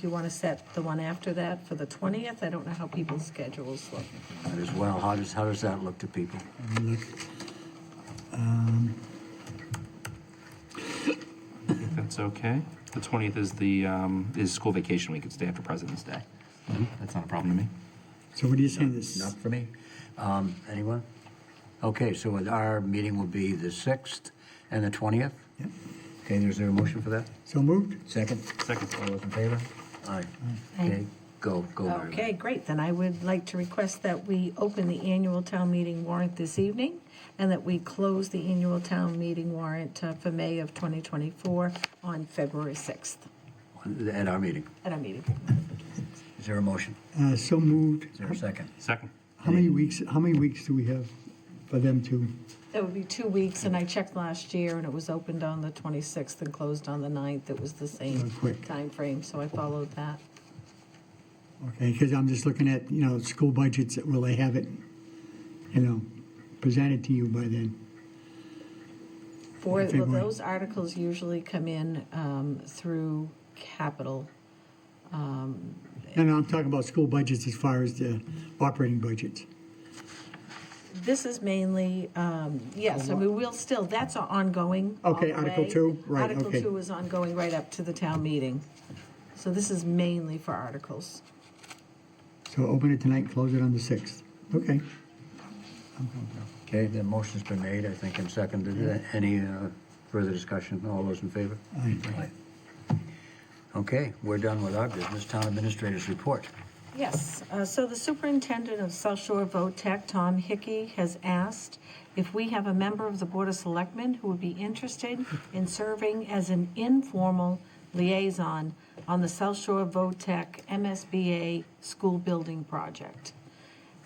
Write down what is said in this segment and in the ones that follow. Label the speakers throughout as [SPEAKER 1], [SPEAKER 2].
[SPEAKER 1] Do you want to set the one after that for the 20th? I don't know how people's schedules look.
[SPEAKER 2] Might as well. How does, how does that look to people?
[SPEAKER 3] Look, um,
[SPEAKER 4] If that's okay. The 20th is the, um, is school vacation week. It's the day after President's Day. Mm-hmm. That's not a problem to me.
[SPEAKER 3] So what are you saying, this,
[SPEAKER 2] Not for me. Um, anyone? Okay, so our meeting will be the 6th and the 20th?
[SPEAKER 3] Yep.
[SPEAKER 2] Okay, there's there a motion for that?
[SPEAKER 3] so moved?
[SPEAKER 2] Second?
[SPEAKER 4] Second.
[SPEAKER 2] All those in favor? Aye.
[SPEAKER 1] Aye.
[SPEAKER 2] Okay, go, go. Mary Lou.
[SPEAKER 1] Okay, great. Then I would like to request that we open the annual town meeting warrant this evening and that we close the annual town meeting warrant uh, for May of 2024 on February 6th
[SPEAKER 2] At our meeting.
[SPEAKER 1] at our meeting.
[SPEAKER 2] Is there a motion?
[SPEAKER 3] Uh, so moved.
[SPEAKER 2] Is there a second?
[SPEAKER 4] Second.
[SPEAKER 3] How many weeks, how many weeks do we have for them to,
[SPEAKER 1] That would be two weeks, and I checked last year, and it was opened on the 26th and closed on the 9th. It was the same
[SPEAKER 3] Oh, quick.
[SPEAKER 1] time frame, so I followed that.
[SPEAKER 3] okay, because I'm just looking at, you know, school budgets, will they have it, you know, presented to you by then?
[SPEAKER 1] For, well,
[SPEAKER 3] February.
[SPEAKER 1] those articles usually come in um, through capital.
[SPEAKER 3] No, no, I'm talking about school budgets as far as the operating budgets.
[SPEAKER 1] This is mainly, um, yes, I mean, we'll still, that's a- ongoing. all
[SPEAKER 3] Okay,
[SPEAKER 1] the
[SPEAKER 3] Article
[SPEAKER 1] way.
[SPEAKER 3] two, right,
[SPEAKER 1] Article
[SPEAKER 3] okay.
[SPEAKER 1] 2 is ongoing right up to the town meeting. So this is mainly for articles.
[SPEAKER 3] So open it tonight, close it on the 6th. Okay.
[SPEAKER 2] Okay, the motion's been made, I think, and seconded. Any uh, further discussion? All those in favor?
[SPEAKER 3] Aye.
[SPEAKER 2] Aye. Okay, we're done with our business. Town administrators report.
[SPEAKER 1] Yes, uh, so the superintendent of South Shore VOTEC, Tom Hickey, has asked if we have a member of the Board of Selectmen who would be interested in serving as an informal liaison on the South Shore VOTEC MSBA school building project.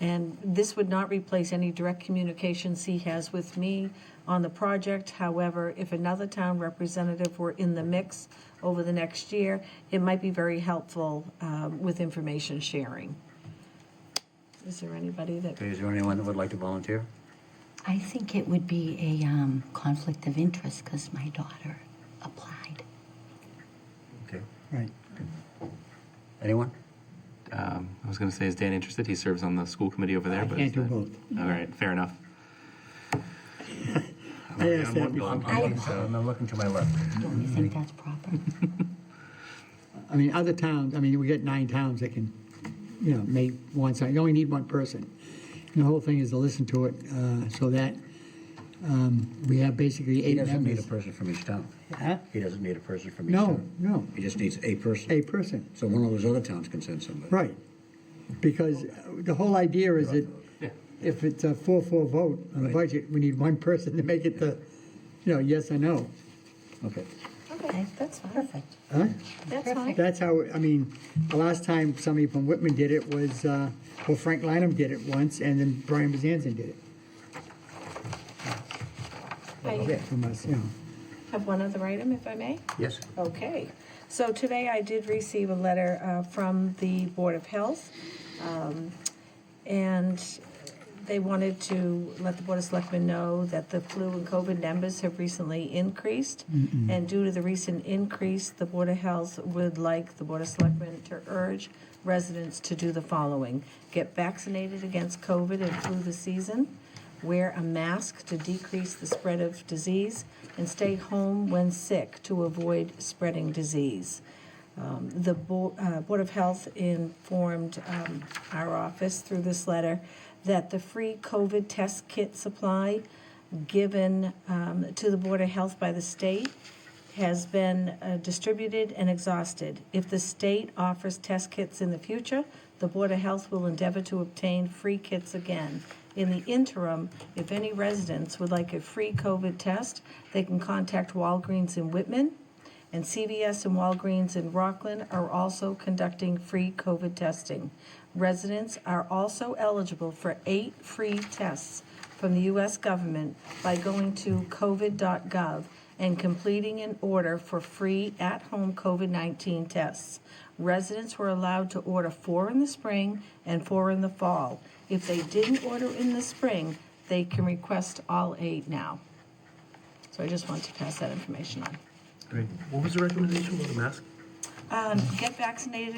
[SPEAKER 1] And this would not replace any direct communications he has with me on the project. However, if another town representative were in the mix over the next year, it might be very helpful um, with information sharing. Is there anybody that?
[SPEAKER 2] Okay, is there anyone that would like to volunteer?
[SPEAKER 5] I think it would be a um, conflict of interest because my daughter applied.
[SPEAKER 2] Okay.
[SPEAKER 3] Right.
[SPEAKER 2] Anyone?
[SPEAKER 4] Um, I was going to say, is Dan interested? He serves on the school committee over there.
[SPEAKER 3] I
[SPEAKER 4] but
[SPEAKER 3] can't
[SPEAKER 4] is
[SPEAKER 3] do
[SPEAKER 4] that-
[SPEAKER 3] both.
[SPEAKER 4] All right, fair enough.
[SPEAKER 3] I asked that
[SPEAKER 4] I'm
[SPEAKER 3] before.
[SPEAKER 4] going.
[SPEAKER 5] I-
[SPEAKER 2] I'm I'm looking to my left.
[SPEAKER 5] Don't you think that's proper?
[SPEAKER 3] I mean, other towns, I mean, we got nine towns that can, you know, make one side, you only need one person. And the whole thing is to listen to it, uh, so that, um, we have basically
[SPEAKER 2] He
[SPEAKER 3] eight
[SPEAKER 2] doesn't need a
[SPEAKER 3] members.
[SPEAKER 2] person from each town.
[SPEAKER 3] Huh?
[SPEAKER 2] He doesn't need a person from each
[SPEAKER 3] No,
[SPEAKER 2] town.
[SPEAKER 3] no,
[SPEAKER 2] He just needs a person.
[SPEAKER 3] a person,
[SPEAKER 2] So one of those other towns can send somebody.
[SPEAKER 3] right. Because the whole idea is that if it's a four-four vote on the
[SPEAKER 2] Right.
[SPEAKER 3] budget, we need one person to make it the, you know, yes or no.
[SPEAKER 2] Okay.
[SPEAKER 1] Okay, that's fine.
[SPEAKER 5] Perfect.
[SPEAKER 3] Huh?
[SPEAKER 1] That's fine.
[SPEAKER 3] That's how, I mean, the last time somebody from Whitman did it was, uh, well, Frank Lineham did it once, and then Brian Bezanson did it
[SPEAKER 1] I
[SPEAKER 3] from us, you know.
[SPEAKER 1] have one other item, if I may.
[SPEAKER 2] Yes.
[SPEAKER 1] Okay, so today I did receive a letter uh, from the Board of Health, um, and they wanted to let the Board of Selectmen know that the flu and COVID numbers have recently increased, and due to the recent increase, the Board of Health would like the Board of Selectmen to urge residents to do the following: get vaccinated against COVID and flu this season, wear a mask to decrease the spread of disease, and stay home when sick to avoid spreading disease. Um, The Bo- uh, Board of Health informed um, our office through this letter that the free COVID test kit supply given um, to the Board of Health by the state has been uh, distributed and exhausted. If the state offers test kits in the future, the Board of Health will endeavor to obtain free kits again. In the interim, if any residents would like a free COVID test, they can contact Walgreens in Whitman, and CVS and Walgreens in Rockland are also conducting free COVID testing. Residents are also eligible for eight free tests from the U.S. government by going to covid.gov and completing an order for free at-home COVID-19 tests. Residents were allowed to order four in the spring and four in the fall. If they didn't order in the spring, they can request all eight now. So I just want to pass that information on.
[SPEAKER 6] Great. What was the recommendation about the mask?
[SPEAKER 1] Uh, um, get vaccinated